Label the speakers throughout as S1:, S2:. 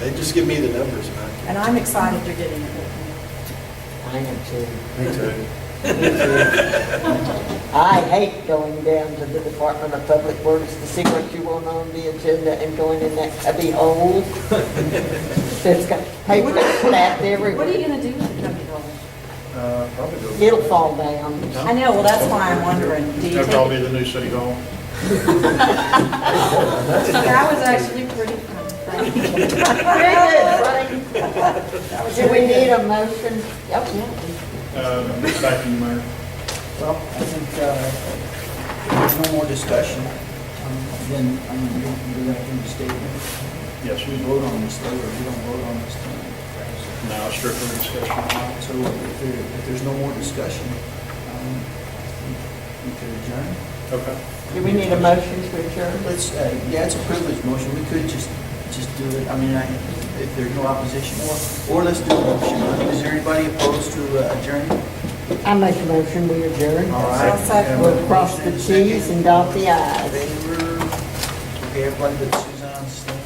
S1: They just give me the numbers, man.
S2: And I'm excited you're getting it.
S3: I am too.
S1: Me too.
S3: I hate going down to the Department of Public Works to see what you want on the agenda and going in that cubby hole. That's got paper stacked
S2: What are you
S3: everywhere.
S2: gonna do with the cubby hole?
S4: Uh, Probably go.
S3: It'll fall down.
S2: I know, well, that's why I'm wondering, do you
S4: That'd probably
S2: take?
S4: be the new city hall.
S2: That was actually pretty fun.
S3: Do we need a motion? Oh, yeah.
S4: Uh, Back to you, Mayor.
S5: Well, I think uh, there's no more discussion, um, then I mean, you're you're gonna do the statement.
S4: Yes,
S5: We
S4: we,
S5: vote on this later, we don't vote on this tonight.
S4: now strictly discussion.
S5: So if there, if there's no more discussion, um, we could adjourn.
S4: Okay.
S3: Do we need a motion to adjourn?
S5: Let's, uh, yeah, it's a privilege motion, we could just, just do it, I mean, I, if there's no opposition, or, or let's do a motion. Is there anybody opposed to uh, adjourning?
S3: I make a motion, we adjourn.
S5: All right.
S2: I'll second.
S3: We'll cross the Ts and dot the Is.
S5: Favor, okay, everybody but Suzanne, Stan.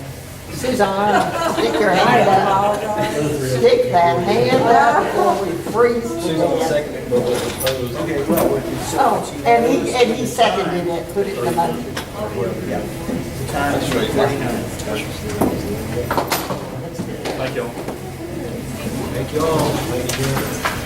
S3: Suzanne, stick your
S2: I
S3: hand up.
S2: apologize.
S3: Stick that hand up before we freeze to death.
S1: seconded, but was opposed.
S5: Okay, well, we can set it
S3: Oh,
S5: to-
S3: and he, and he seconded it, put it in the motion.
S5: Yeah. The time is 39.
S4: Thank you all.
S1: Thank you all. Thank you.